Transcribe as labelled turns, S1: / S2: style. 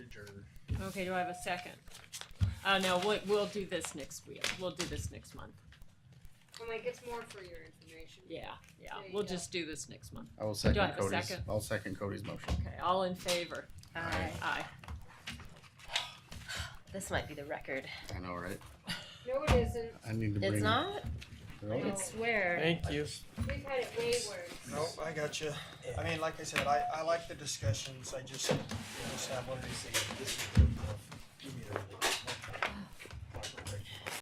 S1: Okay, do I have a second? Uh, no, we'll, we'll do this next week. We'll do this next month.
S2: I'm like, it's more for your information.
S1: Yeah, yeah,
S2: There you
S1: we'll
S2: go.
S1: just do this next month.
S3: I will
S1: Do I
S3: second
S1: have a
S3: Cody's,
S1: second?
S3: I'll second Cody's motion.
S1: Okay, all in favor?
S3: Aye.
S1: Aye.
S4: This might be the record.
S3: I know, right?
S2: No, it isn't.
S3: I need to bring.
S4: It's not?
S3: Really?
S2: No.
S4: It's where?
S5: Thank you.
S2: We've had it way worse.
S6: Nope, I got you. I mean, like I said, I, I like the discussions. I just, you know, just have one of these things. This is good enough. uh, Give me everything.